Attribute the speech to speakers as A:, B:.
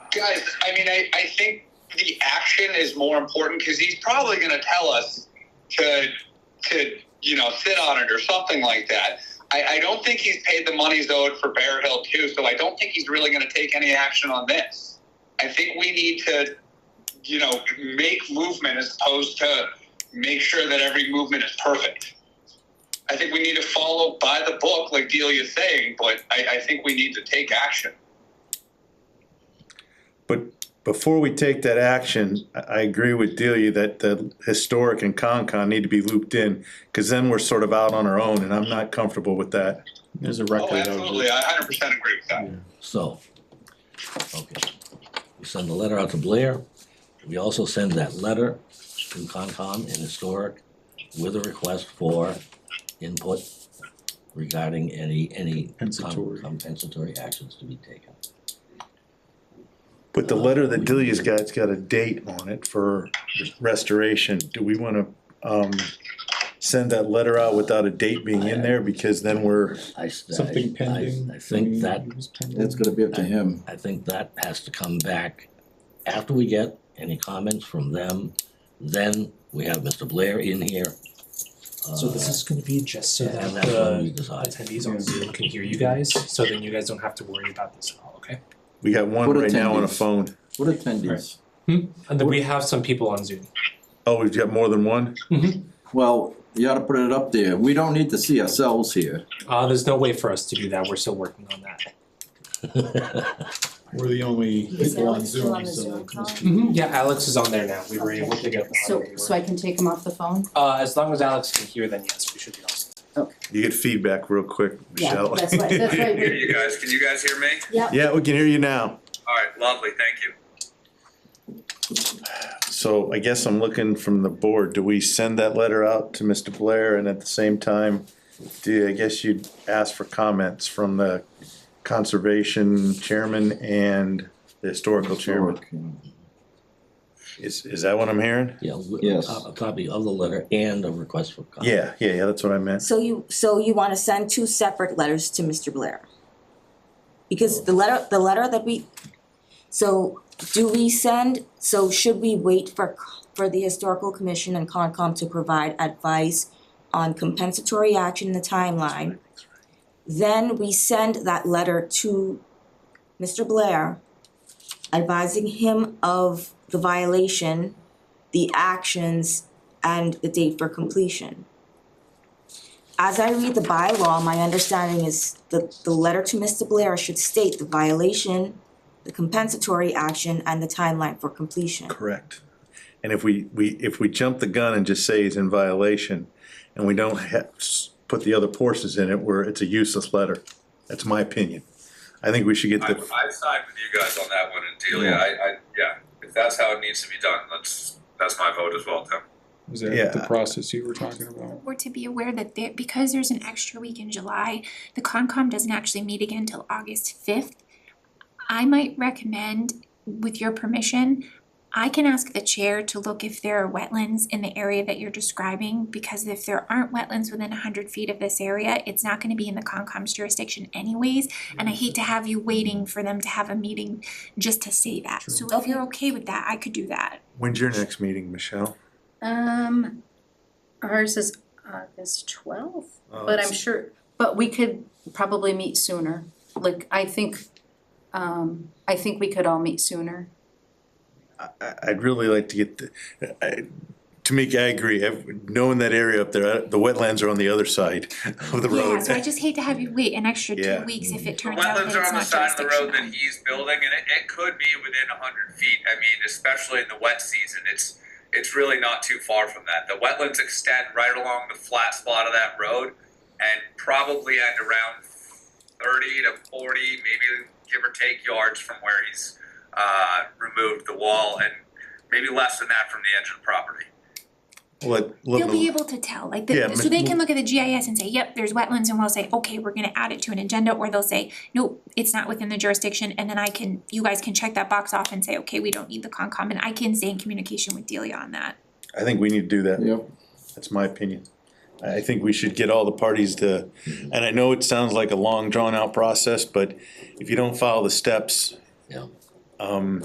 A: guys, I mean, I, I think the action is more important because he's probably going to tell us to to you know sit on it or something like that. I, I don't think he's paid the money he's owed for Bear Hill too, so I don't think he's really going to take any action on this. I think we need to you know make movement as opposed to make sure that every movement is perfect. I think we need to follow by the book, like Delia's saying, but I, I think we need to take action.
B: But before we take that action, I, I agree with Delia that the historic and Concon need to be looped in, because then we're sort of out on our own, and I'm not comfortable with that.
C: There's a
A: Oh,
C: record of
A: absolutely.
C: it.
A: I 100% agree with that.
D: So, okay, we send the letter out to Blair. We also send that letter to Concom and Historic with a request for input regarding any, any com-
C: Compensatory.
D: compensatory actions to be taken.
B: But the letter that Delia's got's got a date on it for restoration. Do we wanna, um, send that letter out without a date being in there? Because then we're,
D: I s- I-
C: Something pending. Mm-hmm.
D: I I think that,
C: It was pending.
E: That's gonna be up to him.
D: I think that has to come back after we get any comments from them. Then we have Mr. Blair in here.
F: So this
D: Uh,
F: is going to uh, be just so
D: and
F: that
D: that's when we
F: the
D: decide.
F: attendees on Zoom can hear you guys, so then you guys don't have to worry about this at all, okay?
B: we got one
E: What
B: right now on a
E: attendees?
B: phone.
E: What attendees?
F: And then we have some people on Zoom.
B: Oh, we've got more than one?
E: Well, you ought to put it up there. We don't need to see ourselves here.
F: Uh, there's no way for us to do that. We're still working on that.
C: We're the only
G: Is
C: people on
G: Alex still on
C: Zoom,
G: the
C: so.
G: Zoom call?
F: Mm-hmm. Yeah, Alex is on there now. We were
G: Okay.
F: able to get. him on
G: So,
F: there.
G: so I can take him off the phone?
F: Uh, as long as Alex can hear, then yes, we should be all set.
B: You get feedback real quick,
G: Yeah,
B: Michelle.
G: that's right, that's right.
A: Here, you guys. Can you guys hear me?
G: Yeah,
B: Yeah, we can hear you now.
A: All right. Lovely. Thank you.
B: So I guess I'm looking from the board, do we send that letter out to Mr. Blair and at the same time, do, I guess you'd ask for comments from the conservation chairman and the historical chairman? Is, is that what I'm hearing?
D: Yeah, w-
E: Yes.
D: a a copy of the letter and a request for comment.
B: Yeah, yeah, yeah, that's what I meant.
H: So you, so you wanna send two separate letters to Mr. Blair? Because the letter, the letter that we, so do we send, so should we wait for, c- for the historical commission and Concom to provide advice on compensatory action in the timeline? Then we send that letter to Mr. Blair advising him of the violation, the actions, and the date for completion. As I read the bylaw, my understanding is that the letter to Mr. Blair should state the violation, the compensatory action, and the timeline for completion.
B: Correct. And if we, we, if we jump the gun and just say he's in violation and we don't ha s put the other portions in it, where it's a useless letter. That's my opinion. I think we should get
A: I,
B: the,
A: I side with you guys on that one, and Delia, I, I, yeah, if that's how it needs to be done, let's. That's my vote as well, Tim.
C: Is that
B: Yeah.
C: the process you were talking about?
I: Or to be aware that there, because there's an extra week in July, the Concom doesn't actually meet again till August fifth. I might recommend, with your permission, I can ask the chair to look if there are wetlands in the area that you're describing, because if there aren't wetlands within hundred feet of this area, it's not gonna be in the Concom's jurisdiction anyways, and I hate to have you waiting for them to have a meeting just to say that. So if you're okay with that, I could do that.
B: when's your next meeting, Michelle?
G: Um, ours is August twelfth,
B: Uh,
G: but I'm sure, but we could probably meet sooner. Like, I think, um, I think we could all meet sooner.
B: I- I'd really like to get, the- I- Tamika, I agree, Ev- knowing that area up there, uh, the wetlands are on the other side of the
I: Yeah,
B: road.
I: so I just hate to have you wait an extra
B: Yeah.
I: two weeks if it
A: The
I: turns out that
A: wetlands
I: it's
A: are on the
I: not
A: side of the road that
I: jurisdictional.
A: he's building, and it, it could be within a hundred feet, I mean, especially in the wet season, it's, it's really not too far from that. The wetlands extend right along the flat spot of that road, and probably at around thirty to forty, maybe give or take yards from where he's, uh, removed the wall, and maybe less than that from the edge of the property.
B: Let- let
I: They'll be
B: me-
I: able to tell, like,
B: Yeah,
I: the- so they
B: but-
I: can look at the GIS and say, yep, there's wetlands, and we'll say, okay, we're gonna add it to an agenda, or they'll say, nope, it's not within the jurisdiction, and then I can, you guys can check that box off and say, okay, we don't need the Concom, and I can stay in communication with Delia on that.
B: I think we need to do that.
E: Yep.
B: That's my opinion. I I think we should get all the parties to, and I know it sounds like a long drawn out process, but if you don't follow the steps.
D: Yeah.
B: Um,